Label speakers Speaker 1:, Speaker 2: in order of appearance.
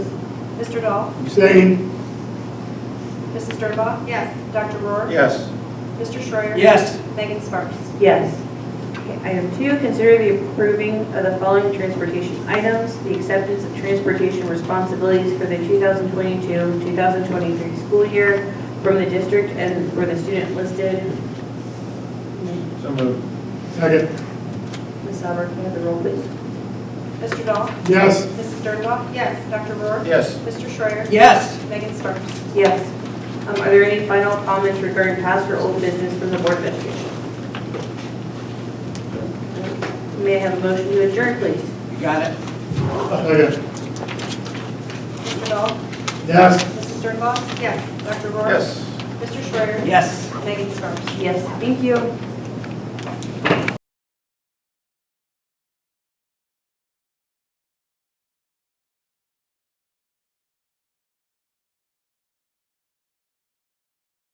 Speaker 1: Mr. Dahl?
Speaker 2: Abstain.
Speaker 1: Mrs. Sternbach?
Speaker 3: Yes.
Speaker 1: Dr. Rohr?
Speaker 2: Yes.
Speaker 1: Mr. Schreier?
Speaker 2: Yes.
Speaker 1: Megan Sparks?
Speaker 4: Yes. Okay, Item two, consider the approving of the following transportation items. The acceptance of transportation responsibilities for the 2022-2023 school year from the district and for the student listed.
Speaker 2: So moved. Second.
Speaker 4: Ms. Albert, can I have the roll, please?
Speaker 1: Mr. Dahl?
Speaker 2: Yes.
Speaker 1: Mrs. Sternbach?
Speaker 3: Yes.
Speaker 1: Dr. Rohr?
Speaker 2: Yes.
Speaker 1: Mr. Schreier?
Speaker 2: Yes.
Speaker 1: Megan Sparks?
Speaker 4: Yes. Um, Are there any final comments regarding past or old business from the Board of Education? May I have a motion to adjourn, please?
Speaker 5: You got it?
Speaker 2: Second.
Speaker 1: Mr. Dahl?
Speaker 2: Yes.
Speaker 1: Mrs. Sternbach?
Speaker 3: Yes.
Speaker 1: Dr. Rohr?
Speaker 2: Yes.
Speaker 1: Mr. Schreier?
Speaker 5: Yes.
Speaker 1: Megan Sparks?
Speaker 4: Yes, thank you.